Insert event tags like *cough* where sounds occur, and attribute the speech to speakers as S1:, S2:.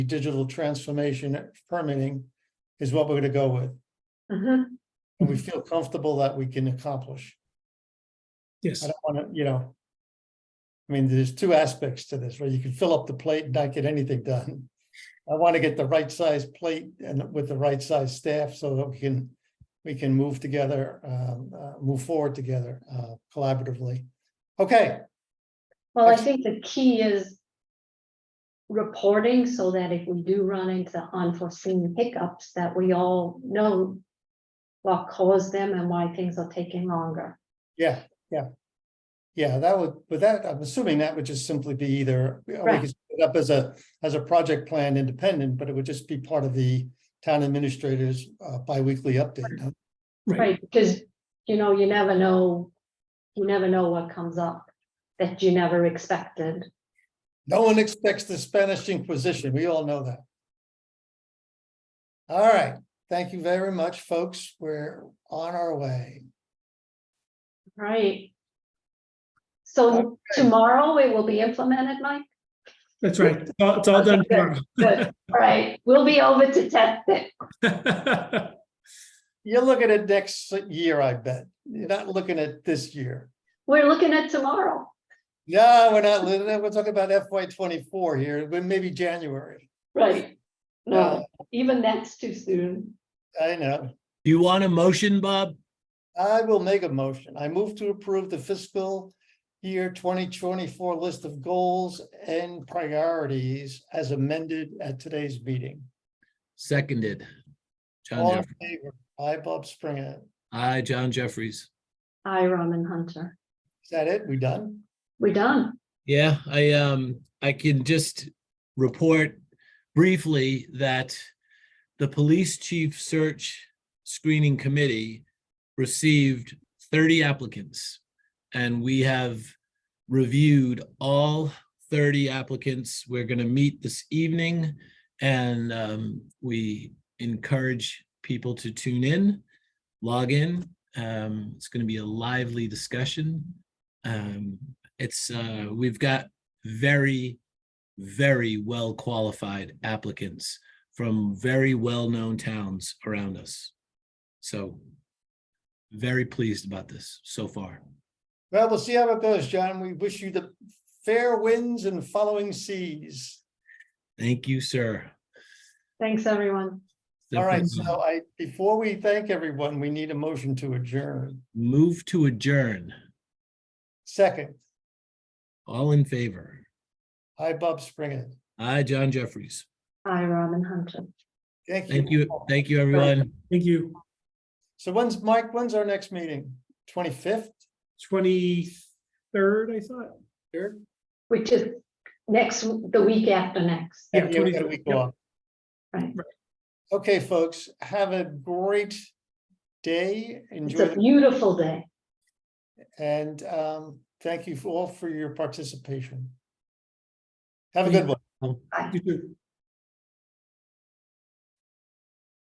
S1: digital transformation permitting is what we're gonna go with.
S2: Mhm.
S1: And we feel comfortable that we can accomplish. I
S3: Yes,
S1: don't wanna, you know. I mean, there's two aspects to this, right? You can fill up the plate and not get anything done. I want to get the right size plate and with the right size staff so that we can, we can move together, uh, uh, move forward together, uh, collaboratively. Okay,
S2: Well, I think the key is reporting so that if we do run into unforeseen hiccups, that we all know what caused them and why things are taking longer.
S1: yeah, yeah. Yeah, that would, but that, I'm assuming that would just simply be either, we
S2: Right.
S1: could set it up as a, as a project plan independent, but it would just be part of the town administrator's, uh, bi-weekly update. huh?
S3: right,
S2: Right, because, you know, you never know, you never know what comes up that you never expected.
S1: No one expects the Spanish Inquisition. We all know that. All right. Thank you very much, folks. We're on our way.
S2: Right. So tomorrow it will be implemented, Mike?
S3: that's right. It's all- It's all done
S2: Okay,
S3: tomorrow.
S2: Good, all right, we'll be over to test it.
S3: *laughs*
S1: You're looking at next year, I bet. You're not looking at this year.
S2: We're looking at tomorrow.
S1: No, we're not. We're talking about FY twenty-four here, but maybe January.
S2: Right. No, even that's too soon.
S1: I know.
S4: You want a motion, Bob?
S1: I will make a motion. I move to approve the fiscal year twenty twenty-four list of goals and priorities as amended at today's meeting.
S4: Seconded. John
S1: All in
S4: Jeff,
S1: favor, I, Bob Springer.
S4: aye, John Jeffries.
S2: Hi, Robin Hunter.
S1: Is that it? We done?
S2: We're done.
S4: Yeah, I, um, I can just report briefly that the police chief search screening committee received thirty applicants. And we have reviewed all thirty applicants. We're gonna meet this evening. And, um, we encourage people to tune in, log in. Um, it's gonna be a lively discussion. Um, it's uh we've got very very well qualified applicants from very well known towns around us so very pleased about this so far
S1: Well, we'll see how it goes, John. We wish you the fair winds and following seas.
S4: thank you sir
S2: Thanks, everyone.
S1: All right,
S4: Stephanie,
S1: so I, before we thank everyone, we need a motion to adjourn.
S4: move to adjourn
S1: Second,
S4: all in favor
S1: I, Bob Springer.
S4: aye john jeffries
S2: Hi, Robin Hunter.
S1: Thank you.
S4: thank you
S1: all.
S4: thank you everyone
S3: Thank you.
S1: So when's, Mike, when's our next meeting? Twenty-fifth?
S3: Twenty-third, I thought.
S1: Third?
S2: Which is next, the week after next.
S3: Yeah,
S1: Yeah, we got a
S3: 23rd,
S1: week
S3: yep.
S1: off.
S2: Right.
S1: Okay, folks, have a great day.
S2: It's
S1: Enjoy,
S2: a
S1: the-
S2: beautiful day.
S1: and um, thank you for all for your participation. Have a good one.
S3: You too.